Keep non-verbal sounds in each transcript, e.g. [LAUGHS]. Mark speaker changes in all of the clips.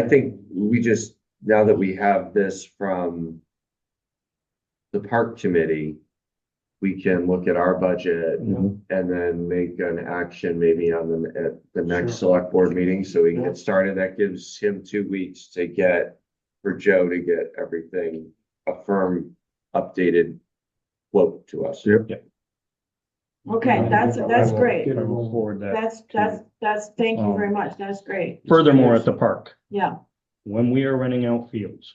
Speaker 1: I think we just, now that we have this from the park committee, we can look at our budget
Speaker 2: Mhm.
Speaker 1: and then make an action maybe on the, at the next select board meeting, so we can
Speaker 2: Yeah.
Speaker 1: get started. That gives him two weeks to get, for Joe to get everything, a firm, updated quote to us.
Speaker 2: Yep.
Speaker 3: Okay, that's, that's great.
Speaker 2: I will forward that.
Speaker 3: That's, that's, that's, thank
Speaker 2: Um,
Speaker 3: you very much. That's great.
Speaker 2: Furthermore, at the park,
Speaker 3: Yeah,
Speaker 2: when we are renting out fields,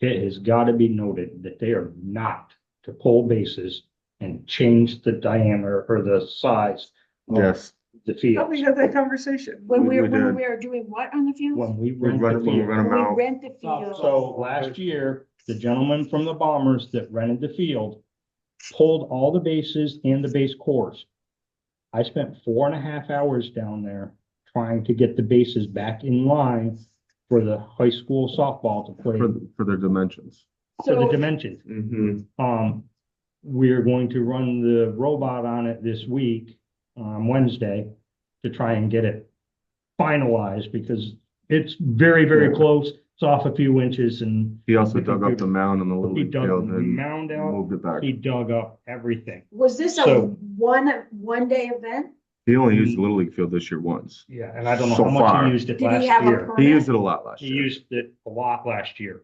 Speaker 2: it has got to be noted that they are not to pull bases and change the diameter or the size of
Speaker 4: Yes,
Speaker 2: the
Speaker 1: How we
Speaker 2: fields.
Speaker 1: had that conversation?
Speaker 3: when
Speaker 4: We-
Speaker 3: we're,
Speaker 4: we
Speaker 3: when
Speaker 4: did.
Speaker 3: we are doing what on the fields?
Speaker 2: When we
Speaker 4: we
Speaker 2: rent
Speaker 4: run,
Speaker 2: the
Speaker 4: when we
Speaker 2: field.
Speaker 4: run them
Speaker 3: We
Speaker 4: out,
Speaker 3: rent the fields.
Speaker 2: Oh, So last year, the gentleman from the Bombers that rented the field pulled all the bases and the base cores. I spent four and a half hours down there trying to get the bases back in line for the high school softball to play
Speaker 4: for, for their dimensions.
Speaker 2: for the
Speaker 3: So,
Speaker 2: dimensions.
Speaker 1: Mm-hmm.
Speaker 2: Um, we're going to run the robot on it this week, on Wednesday, to try and get it finalized because it's very, very close. It's off a few inches and
Speaker 4: He also dug up the mound on the little
Speaker 2: he
Speaker 4: league
Speaker 2: dug
Speaker 4: field
Speaker 2: the
Speaker 4: and
Speaker 2: mound out,
Speaker 4: moved it back.
Speaker 2: he dug up everything.
Speaker 3: was this a
Speaker 2: So-
Speaker 3: one, one day event?
Speaker 4: He only used the little league field this year once.
Speaker 2: Yeah, and I don't know
Speaker 4: So
Speaker 2: how much
Speaker 4: far.
Speaker 2: he used it
Speaker 3: Did
Speaker 2: last
Speaker 3: he have a
Speaker 2: year.
Speaker 3: permit?
Speaker 4: He used it a lot last
Speaker 2: He
Speaker 4: year.
Speaker 2: used it a lot last year.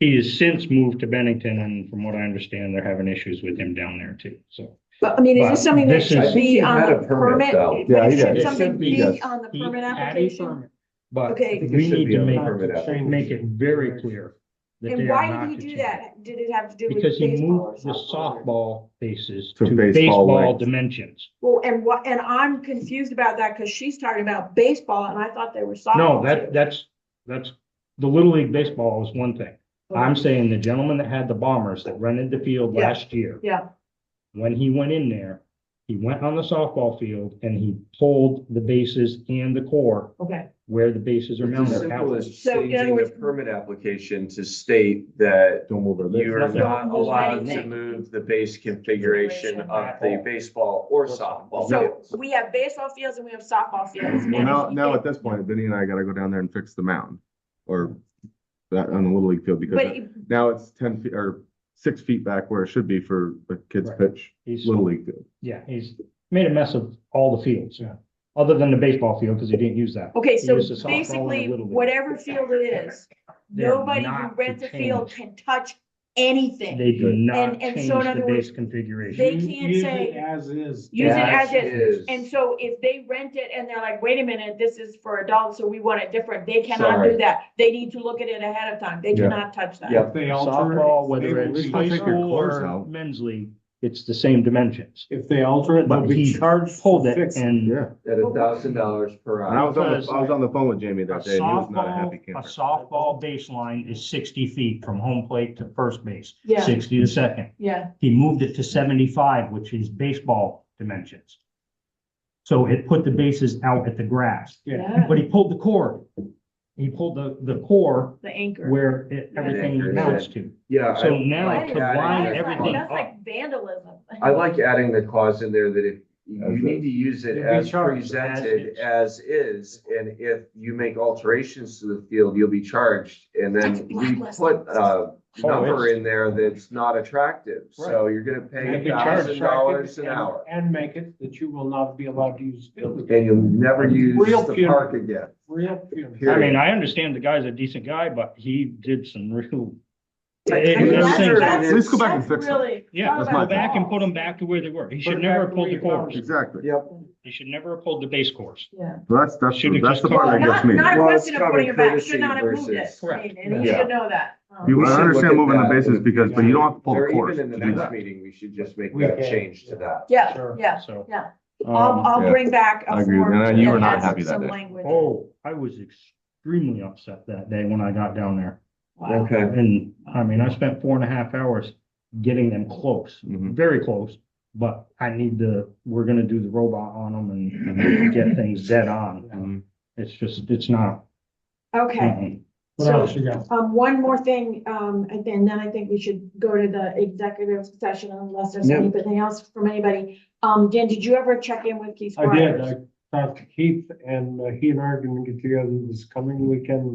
Speaker 2: He has since moved to Bennington and from what I understand, they're having issues with him down there too, so.
Speaker 3: But, I mean, is
Speaker 2: But
Speaker 3: this something that
Speaker 2: this is- I
Speaker 3: should
Speaker 2: think
Speaker 1: he
Speaker 3: be on
Speaker 1: had a
Speaker 3: the
Speaker 1: permit,
Speaker 3: permit?
Speaker 1: though.
Speaker 4: Yeah, he
Speaker 3: Should
Speaker 4: did.
Speaker 3: something
Speaker 5: It should be,
Speaker 3: be
Speaker 5: yes.
Speaker 3: on the
Speaker 2: He
Speaker 3: permit
Speaker 2: had a
Speaker 3: application?
Speaker 2: permit, But
Speaker 3: Okay,
Speaker 2: we need to make,
Speaker 1: Permit application.
Speaker 2: make it very clear. that
Speaker 3: and
Speaker 2: they are
Speaker 3: why
Speaker 2: not
Speaker 3: did
Speaker 2: to
Speaker 3: he do
Speaker 2: change.
Speaker 3: that? Did it have to do with
Speaker 2: Because he
Speaker 3: baseball or
Speaker 2: moved the
Speaker 3: something?
Speaker 2: softball bases
Speaker 4: To
Speaker 2: to
Speaker 4: baseball
Speaker 2: baseball
Speaker 4: length.
Speaker 2: dimensions.
Speaker 3: Well, and what, and I'm confused about that because she's talking about baseball and I thought they were softball.
Speaker 2: No,
Speaker 3: too.
Speaker 2: that, that's, that's, the Little League baseball is one thing. I'm saying the gentleman that had the bombers that rented the field
Speaker 3: Yeah.
Speaker 2: last year.
Speaker 3: Yeah.
Speaker 2: When he went in there, he went on the softball field and he pulled the bases and the core
Speaker 3: Okay,
Speaker 2: where the bases are
Speaker 1: It's as
Speaker 2: mounted.
Speaker 1: simple
Speaker 2: out.
Speaker 1: as
Speaker 3: So, in other
Speaker 1: changing the
Speaker 3: words-
Speaker 1: permit application to state that
Speaker 4: Don't move it.
Speaker 1: you are
Speaker 2: nothing-
Speaker 1: not
Speaker 3: Don't move
Speaker 1: allowed to
Speaker 3: anything.
Speaker 1: move the base configuration of the baseball or softball.
Speaker 3: so
Speaker 1: fields.
Speaker 3: we have baseball fields and we have softball fields.
Speaker 4: Well,
Speaker 3: and
Speaker 4: now,
Speaker 3: he
Speaker 4: now
Speaker 3: did-
Speaker 4: at this point, Vinny and I gotta go down there and fix the mound or that on the little league field
Speaker 3: But,
Speaker 4: because
Speaker 3: it-
Speaker 4: now it's ten feet or six feet back where it should be for the kids
Speaker 2: Right.
Speaker 4: pitch,
Speaker 2: He's,
Speaker 4: little league field.
Speaker 2: yeah, he's made a mess of all the fields, yeah, other than the baseball field, because he didn't use that.
Speaker 3: okay, so
Speaker 2: Use the softball and the
Speaker 3: basically,
Speaker 2: Little League.
Speaker 3: whatever field it is,
Speaker 2: They're
Speaker 3: nobody who
Speaker 2: not to
Speaker 3: rents a field can
Speaker 2: change.
Speaker 3: touch anything.
Speaker 2: They do not
Speaker 3: And- and
Speaker 2: change
Speaker 3: so in
Speaker 2: the
Speaker 3: other words,
Speaker 2: base configuration.
Speaker 3: They can't say,
Speaker 5: As is.
Speaker 3: use it as
Speaker 1: That
Speaker 3: is.
Speaker 1: is-
Speaker 3: And so if they rent it and they're like, wait a minute, this is for adults, so we want it different, they cannot
Speaker 1: Sorry.
Speaker 3: do that. They need to look at it ahead of time. They
Speaker 4: Yeah.
Speaker 3: cannot touch that.
Speaker 1: Yeah.
Speaker 5: If they alter,
Speaker 2: Softball,
Speaker 5: it,
Speaker 2: whether
Speaker 5: they will
Speaker 2: it's
Speaker 5: be-
Speaker 4: I'll
Speaker 2: high
Speaker 4: take your
Speaker 2: school
Speaker 4: clothes
Speaker 2: or
Speaker 4: out.
Speaker 2: men's league, it's the same dimensions.
Speaker 5: if they alter it, they'll
Speaker 2: But
Speaker 5: be
Speaker 2: he
Speaker 5: charged
Speaker 2: pulled
Speaker 5: for
Speaker 2: it
Speaker 5: fixing.
Speaker 2: and
Speaker 4: Yeah.
Speaker 1: At a thousand dollars per
Speaker 4: And I
Speaker 1: hour.
Speaker 4: was on
Speaker 2: Because-
Speaker 4: the, I was on the phone with Jamie
Speaker 2: a
Speaker 4: that day and he was not a
Speaker 2: softball,
Speaker 4: happy
Speaker 2: a
Speaker 4: camper.
Speaker 2: softball baseline is sixty feet from home plate to first base,
Speaker 3: Yeah,
Speaker 2: sixty to second.
Speaker 3: yeah.
Speaker 2: He moved it to seventy-five, which is baseball dimensions. So it put the bases out at the grass,
Speaker 5: Yeah.
Speaker 2: but he pulled the core. He pulled the, the core
Speaker 3: The anchor.
Speaker 2: where it, everything mounts to.
Speaker 1: Yeah. I
Speaker 2: So now
Speaker 1: like
Speaker 2: to
Speaker 1: adding
Speaker 2: line
Speaker 1: that clause.
Speaker 2: everything up.
Speaker 3: That's like vandalism.
Speaker 1: I like adding the clause in there that if you need to use it
Speaker 5: You'll be
Speaker 1: as
Speaker 5: charged
Speaker 1: presented as is, and if you make alterations to the field, you'll be charged. And then
Speaker 3: That's
Speaker 1: we
Speaker 3: blacklisted.
Speaker 1: put uh, a
Speaker 5: Oh,
Speaker 1: number
Speaker 2: Oh, it's-
Speaker 1: in there that's not attractive, so you're gonna pay
Speaker 5: Make
Speaker 1: a
Speaker 5: it charged.
Speaker 1: thousand dollars an
Speaker 5: And-
Speaker 1: hour.
Speaker 5: And make it that you will not be allowed to use field.
Speaker 1: And you'll never use
Speaker 5: Real
Speaker 1: the
Speaker 5: funeral.
Speaker 1: park again.
Speaker 5: Real punitive.
Speaker 1: Here.
Speaker 2: I mean, I understand the guy's a decent guy, but he did some [LAUGHS] real.
Speaker 3: I
Speaker 2: It-
Speaker 3: mean,
Speaker 2: it was
Speaker 3: that's-
Speaker 2: things-
Speaker 3: [LAUGHS] that's-
Speaker 4: Let's go back and
Speaker 3: that's
Speaker 4: fix it.
Speaker 3: really-
Speaker 2: Yeah,
Speaker 3: that's
Speaker 2: let's
Speaker 4: my
Speaker 2: go back and put them back to where they were. He
Speaker 5: Put
Speaker 2: should
Speaker 5: it
Speaker 2: never
Speaker 5: back
Speaker 2: have
Speaker 5: to
Speaker 2: pulled the
Speaker 5: where you
Speaker 2: core.
Speaker 5: found it.
Speaker 4: Exactly.
Speaker 1: Yep.
Speaker 2: He should never have pulled the base course.
Speaker 3: Yeah.
Speaker 4: So That's, that's,
Speaker 2: Should've
Speaker 4: that's
Speaker 2: just
Speaker 4: the
Speaker 2: called
Speaker 4: part
Speaker 3: Well,
Speaker 4: that gets
Speaker 3: not,
Speaker 4: me.
Speaker 3: not a
Speaker 1: Well,
Speaker 3: question
Speaker 1: it's
Speaker 3: of putting
Speaker 1: common
Speaker 3: it back, should
Speaker 1: courtesy
Speaker 3: not have moved it,
Speaker 1: versus-
Speaker 2: Correct.
Speaker 3: and you
Speaker 4: Yeah.
Speaker 3: should know that. Um,
Speaker 4: You
Speaker 1: We should look
Speaker 4: understand
Speaker 1: at
Speaker 4: moving the
Speaker 1: that.
Speaker 4: bases because, but you don't have to pull
Speaker 1: Or
Speaker 4: the
Speaker 1: even
Speaker 4: course
Speaker 1: in the
Speaker 4: to do
Speaker 1: next
Speaker 4: that.
Speaker 1: meeting, we should just make
Speaker 5: We
Speaker 1: that
Speaker 5: can,
Speaker 1: change to that.
Speaker 3: Yeah,
Speaker 5: Sure.
Speaker 3: yeah,
Speaker 2: So.
Speaker 3: yeah. I'll,
Speaker 2: Um,
Speaker 3: I'll
Speaker 4: yeah.
Speaker 3: bring back
Speaker 4: I
Speaker 3: a
Speaker 4: agree with
Speaker 3: form
Speaker 4: you. And you were
Speaker 3: that
Speaker 4: not
Speaker 3: has
Speaker 4: happy that
Speaker 3: some
Speaker 4: day.
Speaker 3: language.
Speaker 2: oh, I was extremely upset that day when I got down there.
Speaker 3: Wow.
Speaker 1: Okay.
Speaker 2: And I mean, I spent four and a half hours getting them close,
Speaker 4: Mhm.
Speaker 2: very close. But I need to, we're gonna do the robot on them and get things dead on.
Speaker 4: Mhm.
Speaker 2: It's just, it's not. um,
Speaker 3: Okay,
Speaker 2: mm-mm.
Speaker 5: What else you got?
Speaker 3: um, one more thing, um, and then then I think we should go to the executive session unless there's
Speaker 1: Yeah.
Speaker 3: anything else from anybody. Um, Dan, did you ever check in with Keith
Speaker 5: I did,
Speaker 3: Squires?
Speaker 5: I
Speaker 2: talked to Keith and uh, he and I are gonna get together this coming weekend